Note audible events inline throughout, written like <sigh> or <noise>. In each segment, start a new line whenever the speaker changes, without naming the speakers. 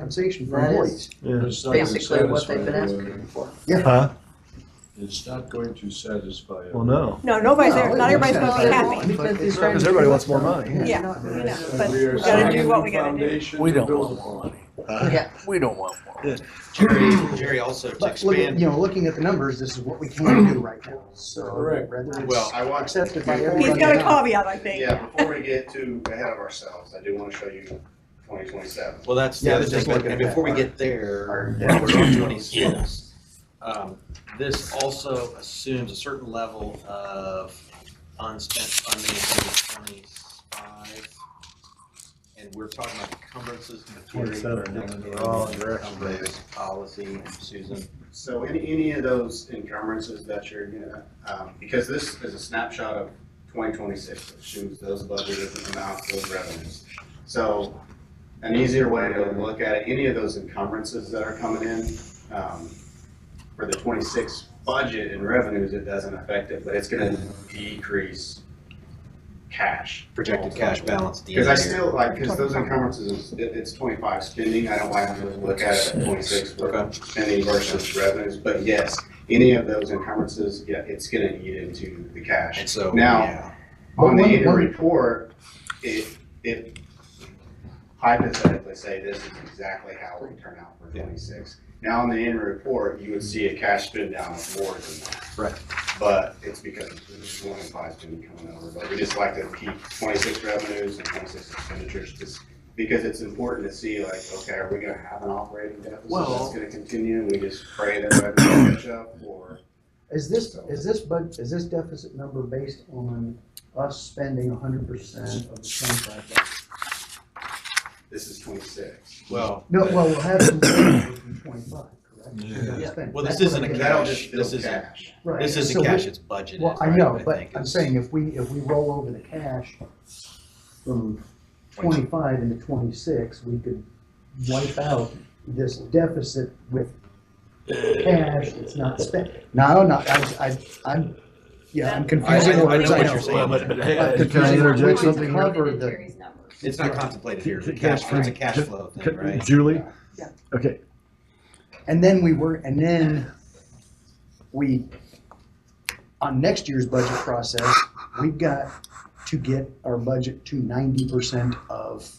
compensation for
That is-
employees.
Yeah.
It's not gonna
basically what they've been
satisfy
asking for.
Huh?
everyone. It's not going to satisfy.
Well, no.
No, nobody's there, not everybody's gonna be happy.
Because
Because everybody wants more money.
Yeah, we know, but
We are
we gotta do what we
setting
gotta do.
foundation
We
to
don't
build
want more
upon.
money.
Yeah,
We don't want more.
Jerry, Jerry also to
But look, at-
expand,
you know, looking at the numbers, this is what we can do right now, so.
Correct.
rather it's
Well, I want,
Accepted by everybody.
He's got a caveat, I think.
yeah, before we get too ahead of ourselves, I do want to show you twenty twenty-seven.
well, that's the
Yeah,
other
just
thing, but-
looking
and
at
before we
that
get there,
Yeah.
we're on twenty-six. Um, This also assumes a certain level of unspent funding in twenty-five. And we're talking about encumbrances in the theory.
27,
next
we're all in
meeting,
direction.
encumbrance Policy, Susan.
So any, any of those encumbrances that you're gonna, um, because this is a snapshot of twenty twenty-six, which shows those budgeted amounts, those revenues. So an easier way to look at it, any of those encumbrances that are coming in, um, for the twenty-six budget and revenues, it doesn't affect it, but it's gonna decrease cash.
Projected cash balance at the end
Because I
of the year.
still, like, because those encumbrances, it, it's twenty-five spending, I don't like to look at it at twenty-six, but spending versus revenues, but yes, any of those encumbrances, yeah, it's gonna eat into the cash.
And so,
Now-
yeah,
But
On the
one-
annual
one-
report, if, if hypothetically say this is exactly how it would turn out for
Yeah.
twenty-six, now on the annual report, you would see a cash spend down of more than that.
Right.
But it's because there's one in five student coming over, but we just like to keep twenty-six revenues and twenty-six expenditures, just because it's important to see like, okay, are we gonna have an operating deficit
Well-
that's gonna continue, and we just pray that revenue catch up, or?
Is this, is this bud, is this deficit number based on us spending hundred percent of the twenty-five? dollars?
This is twenty-six.
well.
No, well, we'll have some <coughs> left from twenty-five, correct? We're gonna
Yeah.
spend.
Well, this
That's
isn't
what
a
I get.
Cash,
That'll just fill
this is a-
cash.
Right.
This
So
isn't
we-
cash, it's budgeted.
Well, I
right?
know,
I
but
think
I'm
it's-
saying if we, if we roll over the cash from twenty-five into twenty-six, we could wipe out this deficit with cash that's not spent. No, no, I, I, I'm, yeah, I'm
I- I
confusing
know
words,
what
I
you're
know.
saying.
Well, but, but hey,
But
can I
confusing
interject
words.
something?
Cover
Included in
the-
Jerry's numbers.
It's not contemplated here,
Ca- ca-
cash,
ca-
it's a cash flow thing, right?
Julie?
Yeah.
Okay,
And then we were, and then we, on next year's budget process, we've got to get our budget to ninety percent of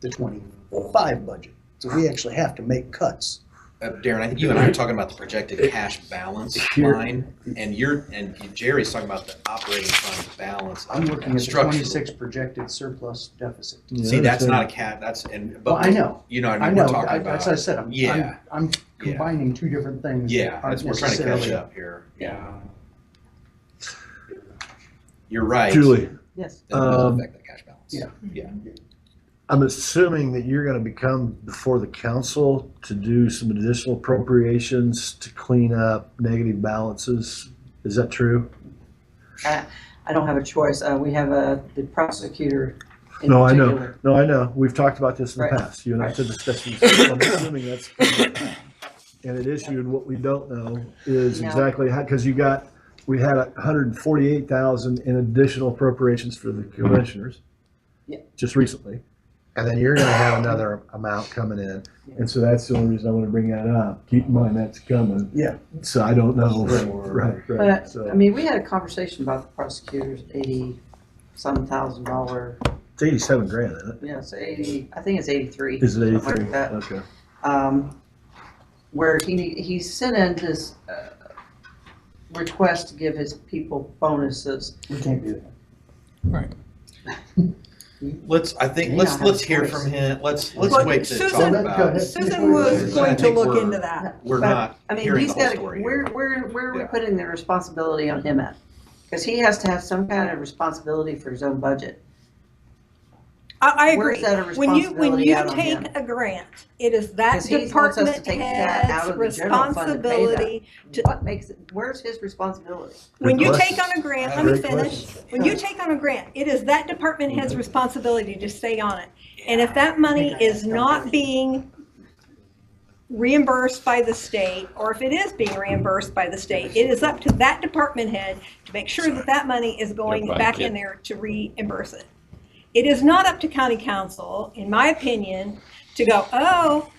the twenty-five budget. So we actually have to make cuts.
Uh, Darren, I think you and I are talking about the projected cash balance
Here.
line, and you're, and Jerry's talking about the operating fund balance. of
I'm looking at the
structural.
twenty-six projected surplus deficit.
Yeah,
See, that's
understand.
not a cat, that's, and,
Well, I
but,
know,
you know, what I
I
mean, we're
know,
talking
I- that's what I
about,
said, I'm, I'm,
Yeah.
I'm
Yeah.
combining two different things.
yeah,
that
that's,
aren't
we're trying to catch
necessarily-
up here. Yeah. You're right.
Julie,
yes.
That does
um,
affect the cash balance.
yeah.
I'm assuming that you're gonna become before the council to do some additional appropriations to clean up negative balances. Is that true?
I don't have a choice. Uh, we have a, the prosecutor in
No, I know,
particular.
no, I know. We've talked about this in the
Right.
past. You and I
Right.
said this,
<coughs>
that's, I'm assuming that's. And it issued, what we don't know is
No.
exactly how, because you got, we had a hundred and forty-eight thousand in additional appropriations for the commissioners.
Yeah.
Just recently. And then you're gonna have another amount coming in. And so that's the only reason I want to bring that up. Keep in mind, that's coming.
Yeah.
So I don't know.
Sure.
Right, right.
But, I
So
mean, we had a conversation about the prosecutor's eighty-some thousand dollar,
it's eighty-seven grand, isn't it?
yes, eighty, I think it's eighty-three.
Is it
something like
eighty-three?
that.
Okay.
um, where he, need- he sent in this uh, request to give his people bonuses.
We can't do that.
Let's, I
You
think,
don't
let's,
have
let's
a
hear
choice.
from him, let's,
Well,
let's wait to talk
Susan-
about, it.
Susan was going to look into that.
we're
but,
not
I mean,
hearing
he's
the whole
got,
story
where,
here.
where, where are we
Yeah.
putting the responsibility on him at? Because he has to have some kind of responsibility for his own budget.
I, I
Where's
agree.
that a
When you, when
responsibility
you
out on him?
take a grant, it is that
'Cause he wants us to
department
take that out
head's
of the general fund to pay that.
responsibility. to-
What makes, it? where's his responsibility?
When you
Good
take on
question.
a grant, let me
Great
finish. When you take on a grant, it is that department head's responsibility to stay on it. And if that money is not being reimbursed by the state, or if it is being reimbursed by the state, it is up to that department head to make sure that that money is going
You're right,
back
kid.
in there to reimburse it. It is not up to county council, in my opinion, to go, oh,